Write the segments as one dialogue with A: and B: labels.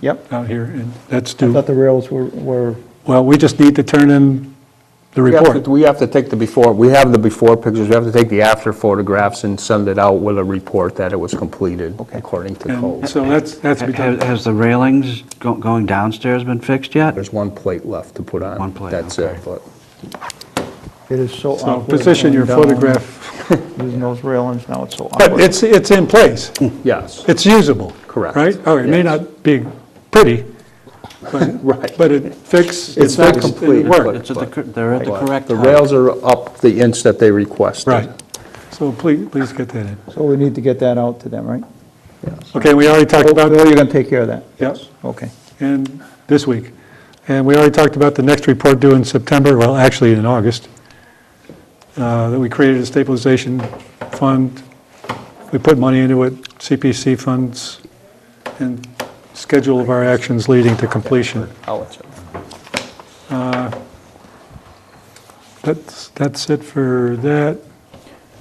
A: Yep.
B: out here, and that's
A: I
B: due.
A: thought the rails were, were,
B: Well, we just need to turn in the
C: We have
B: report.
C: to- We have to take the before, we have the before pictures, we have to take the after photographs and send it out with a report that it was completed according to
B: And
C: code.
B: so that's, that's be done.
D: Has has the railings go- going downstairs been fixed yet?
C: There's one plate left to put on.
D: One plate,
C: That's
D: okay.
C: it, but
A: it is so
B: So
A: awkward.
B: position your
A: going down,
B: photograph,
A: Using those railings, now it's so
B: but
A: awkward.
B: it's, it's in place.
C: yes,
B: It's usable.
C: Correct.
B: Right? Oh, it may
C: Yes.
B: not be pretty, but,
C: Right.
B: but it fixed.
C: It's not
B: fixed, and
C: complete,
B: It worked.
C: but-
D: It's at the cor- They're at the correct
C: the
D: height.
C: rails are up the inch that they requested.
B: Right. So please, please get that in.
A: So we need to get that out to them, right?
B: Okay, we already talked about.
A: Bill, you're gonna take care of that?
B: Yep,
A: Okay.
B: and this week. And we already talked about the next report due in September, well, actually in August, uh, that we created a stabilization fund. We put money into it, CPC funds, and schedule of our actions leading to completion.
C: I'll let you-
B: That's, that's it for that.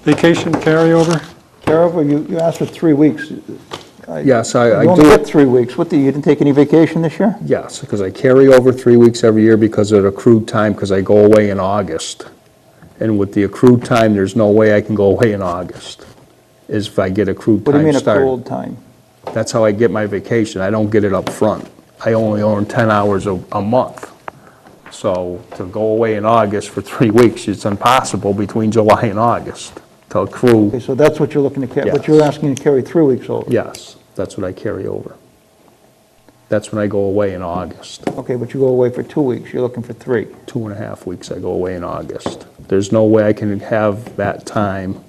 B: Vacation carryover?
A: Carol, you, you asked for three weeks.
C: Yes, I, I
A: You only
C: do,
A: get three weeks. What, do you you didn't take any vacation this year?
C: yes, because I carry over three weeks every year because of accrued time, because I go away in August. And with the accrued time, there's no way I can go away in August, is if I get accrued
A: What do you
C: time
A: mean a
C: started.
A: cold time?
C: That's how I get my vacation. I don't get it up front. I only earn 10 hours a, a month. So to go away in August for three weeks, it's impossible between July and August to
A: Okay,
C: accrue.
A: so that's what you're looking to carry, but
C: Yes.
A: you're asking to carry three weeks over?
C: Yes, that's what I carry over. That's when I go away in August.
A: Okay, but you go away for two weeks, you're looking for three.
C: Two and a half weeks I go away in August. There's no way I can have that time.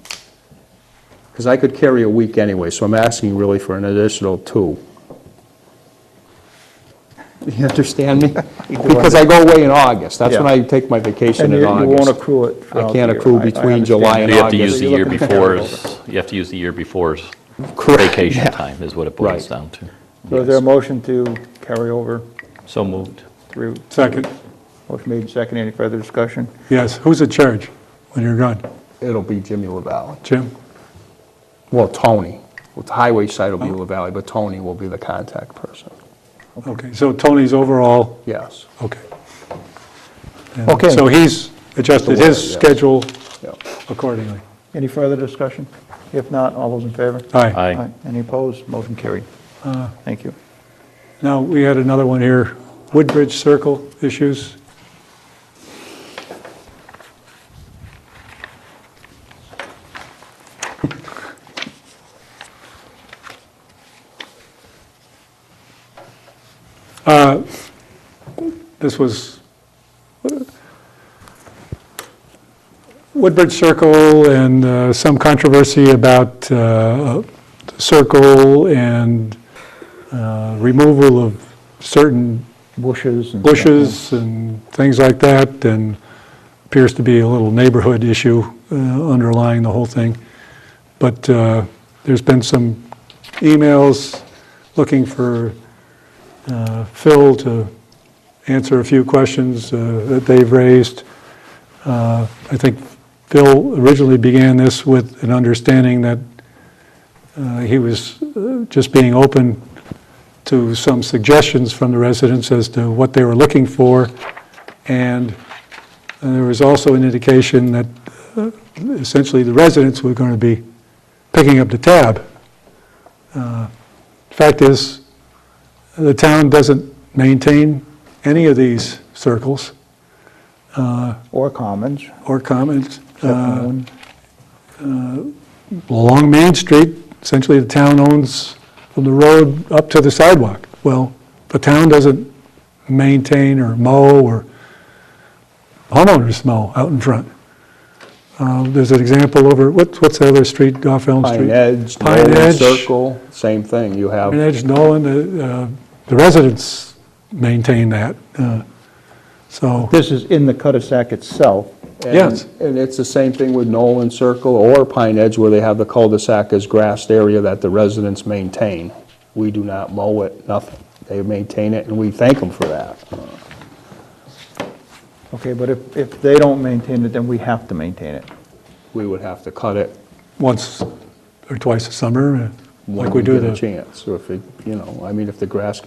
C: Because I could carry a week anyway, so I'm asking really for an additional two. You understand me? Because I go away in August, that's when I take my vacation
A: And
C: in
A: you
C: August.
A: you won't accrue it
C: I
A: throughout the
C: can't
A: year.
C: accrue
A: I- I
C: between
A: understand.
C: July
E: And
C: and
E: you have to use
C: August.
E: the
A: you're
E: year
A: looking at
E: before's, you have to use the year before's
C: Correct,
E: vacation
C: yeah.
E: time is what it boils
C: Right.
E: down to.
A: So is there a motion to carry over
E: So moved.
A: three?
B: Second.
A: Motion made, second, any further discussion?
B: Yes, who's in charge when you're gone?
C: It'll be Jimmy LaValle.
B: Jim?
C: Well, Tony. Well, The highway side will be
E: Oh.
C: LaValle, but Tony will be the contact person.
B: Okay, so Tony's overall,
C: Yes.
B: okay. And
A: Okay.
B: So he's adjusted
C: Aware,
B: his
C: yes.
B: schedule
C: Yep.
B: accordingly.
A: Any further discussion? If not, all those in favor?
B: Aye.
E: Aye.
A: Any opposed? Motion carried. Thank you.
B: Now, we had another one here, Woodbridge Circle issues. Uh, This was, Woodbridge Circle and uh, some controversy about uh, Circle and uh, removal of certain
A: Bushes and...
B: bushes and things like that, and appears to be a little neighborhood issue uh, underlying the whole thing. But uh, there's been some emails looking for uh, Phil to answer a few questions uh, that they've raised. Uh, I think Phil originally began this with an understanding that uh, he was uh, just being open to some suggestions from the residents as to what they were looking for. And uh, there was also an indication that uh, essentially the residents were going to be picking up the tab. Uh, Fact is, the town doesn't maintain any of these circles
A: Or commons,
B: or commons.
A: except
B: Uh,
A: one.
B: along Main Street, essentially the town owns from the road up to the sidewalk. Well, the town doesn't maintain or mow or homeowners mow out in front. Uh, There's an example over, what's, what's the other street off Elm Street?
C: Pine Edge,
B: Pine
C: Nolan
B: Edge.
C: Circle, same thing. You have
B: Pine Edge, Nolan, uh, uh, the residents maintain that, uh, so,
A: This is in the cul-de-sac itself.
C: And-
B: Yes.
C: And it's the same thing with Nolan Circle or Pine Edge where they have the cul-de-sac as grassed area that the residents maintain. We do not mow it, nothing. They maintain it and we thank them for that.
A: Okay, but if, if they don't maintain it, then we have to maintain it.
C: We would have to cut it
B: once or twice a summer, uh,
C: when
B: like we
C: we
B: do
C: get
B: the
C: a chance. Or if, it- you know, I mean, if the grass gets